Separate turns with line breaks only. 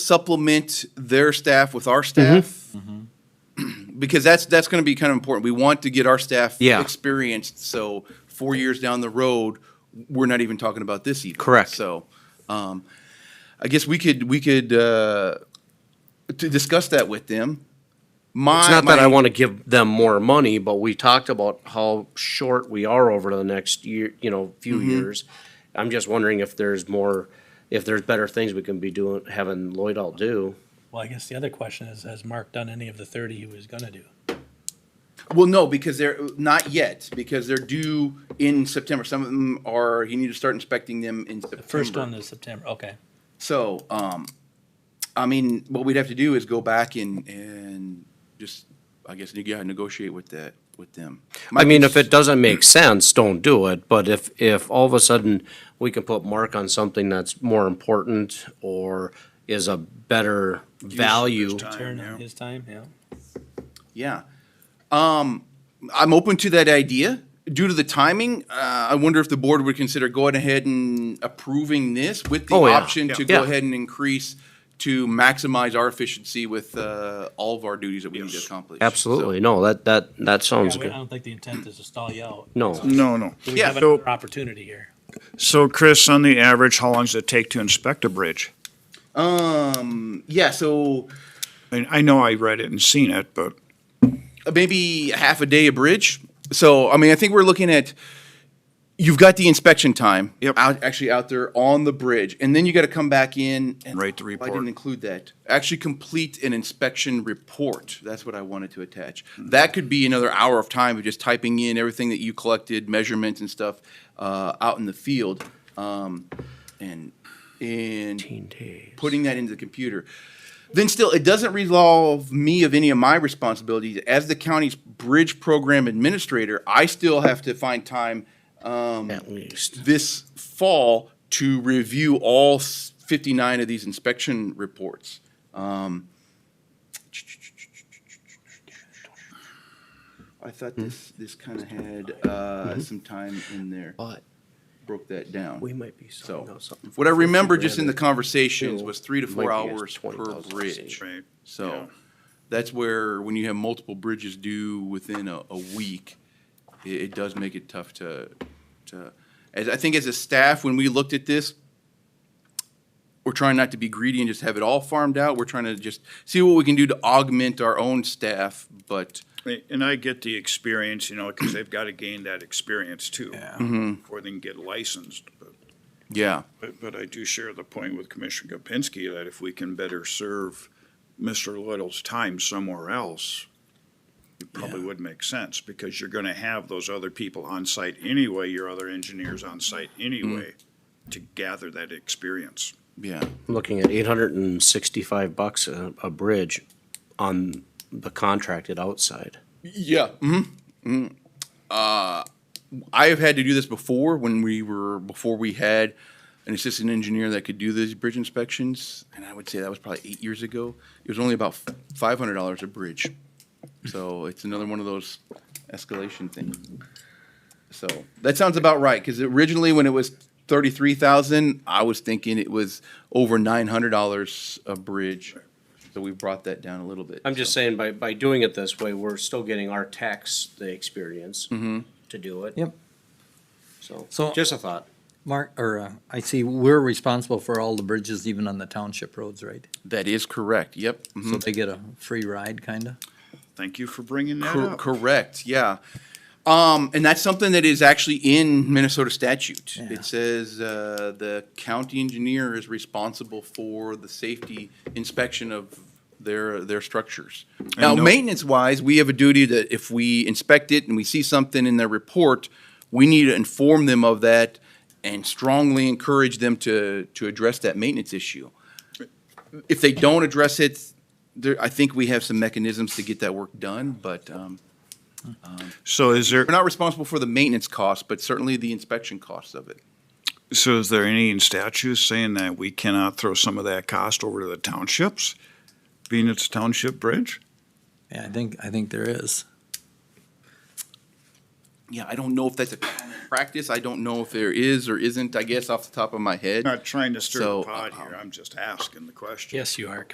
supplement their staff with our staff?
Mm-hmm.
Mm-hmm. Because that's, that's going to be kind of important. We want to get our staff
Yeah.
experienced, so four years down the road, we're not even talking about this even.
Correct.
So, um, I guess we could, we could, uh, to discuss that with them.
It's not that I want to give them more money, but we talked about how short we are over the next year, you know, few
Mm-hmm.
years. I'm just wondering if there's more, if there's better things we can be doing, having Lloyd all do.
Well, I guess the other question is, has Mark done any of the thirty he was gonna do?
Well, no, because they're not yet, because they're due in September. Some of them are, you need to start inspecting them in September.
The first one is September, okay.
So, um, I mean, what we'd have to do is go back and, and just, I guess, neg- yeah, negotiate with that, with them.
I mean, if it doesn't make sense, don't do it, but if, if all of a sudden we can put Mark on something that's more important or is a better value.
Turn on his time, yeah.
Yeah. Um, I'm open to that idea. Due to the timing, uh, I wonder if the board would consider going ahead and approving this with the
Oh, yeah.
option to go
Yeah.
ahead and increase to maximize our efficiency with, uh, all of our duties that we need to accomplish. So-
Absolutely, no, that, that, that sounds
Yeah, we- I
good.
don't think the intent is to stall you out.
No,
No, no.
We
Yeah,
have
so-
another opportunity here.
So Chris, on the average, how long does it take to inspect a bridge?
Um, yeah, so
I mean, I know I read it and seen it, but
maybe half a day a bridge. So, I mean, I think we're looking at, you've got the inspection time.
Yep.
Out, actually out there on the bridge, and then you gotta come back in. and-
Write the
I
report.
didn't include that. Actually complete an inspection report. That's what I wanted to attach. That could be another hour of time of just typing in everything that you collected, measurements and stuff, uh, out in the field. Um, and, and putting that into the computer. Then still, it doesn't resolve me of any of my responsibilities. As the county's bridge program administrator, I still have to find time um,
at least.
this fall to review all s- 59 of these inspection reports. Um, I thought this, this kind of had uh, some time in there,
But
broke that down.
Mm-hmm. we might be selling
So,
out something.
What I
for 50
remember
grand
just in the
that-
conversations
Bill
was three to
might
four
be as
hours per
20,000
bridge.
Right. Yeah.
So that's where, when you have multiple bridges due within a, a week, it, it does make it tough to, to, as, I think as a staff, when we looked at this, we're trying not to be greedy and just have it all farmed out. We're trying to just see what we can do to augment our own staff, but
and I get the experience, you know, because they've got to gain that experience too before they can get licensed. But-
yeah.
But, but I do share the point with Commissioner Gopinski that if we can better serve Mr. Little's time somewhere else, it probably would make sense because you're going to have those other people on site anyway, your other engineers on site anyway,
Mm.
to gather that experience.
Yeah,
I'm Looking at eight hundred and sixty-five bucks a, a bridge on the contracted outside.
yeah. hmm I have had to do this before when we were before we had an assistant engineer that could do these bridge inspections, and I would say that was probably eight years ago. It was only about five hundred dollars a bridge, so it's another one of those escalation things. So that sounds about right because originally when it was thirty three thousand, I was thinking it was over nine hundred dollars a bridge, so we brought that down a little bit.
I'm just
so.
saying, by, by doing it this way, we're still getting our tax, the experience to do it.
Mm-hmm. Yep.
So,
So-
just a thought.
Mark, or uh, I see we're responsible for all the bridges even on the township roads, right?
that is correct. Yep. mhm.
So they get a free ride, kinda?
Thank you for bringing that
Cor-
up.
Correct, yeah. Um, and that's something that is actually in Minnesota statute.
Yeah.
It says, uh, the county engineer is responsible for the safety inspection of their, their structures. Now,
no-
maintenance wise, we have a duty that if we inspect it and we see something in their report, we need to inform them of that and strongly encourage them to, to address that maintenance issue. If they don't address it, there, I think we have some mechanisms to get that work done, but, um,
So is there,
we're not responsible for the maintenance costs, but certainly the inspection costs of it.
so is there any statute saying that we cannot throw some of that cost over to the townships, being it's a township bridge?
Yeah, I think, I think there is.
yeah, I don't know if that's a common practice. I don't know if there is or isn't, I guess, off the top of my head.
Not trying to stir
So,
the pot
um,
here, I'm just asking the question.
Yes, you are,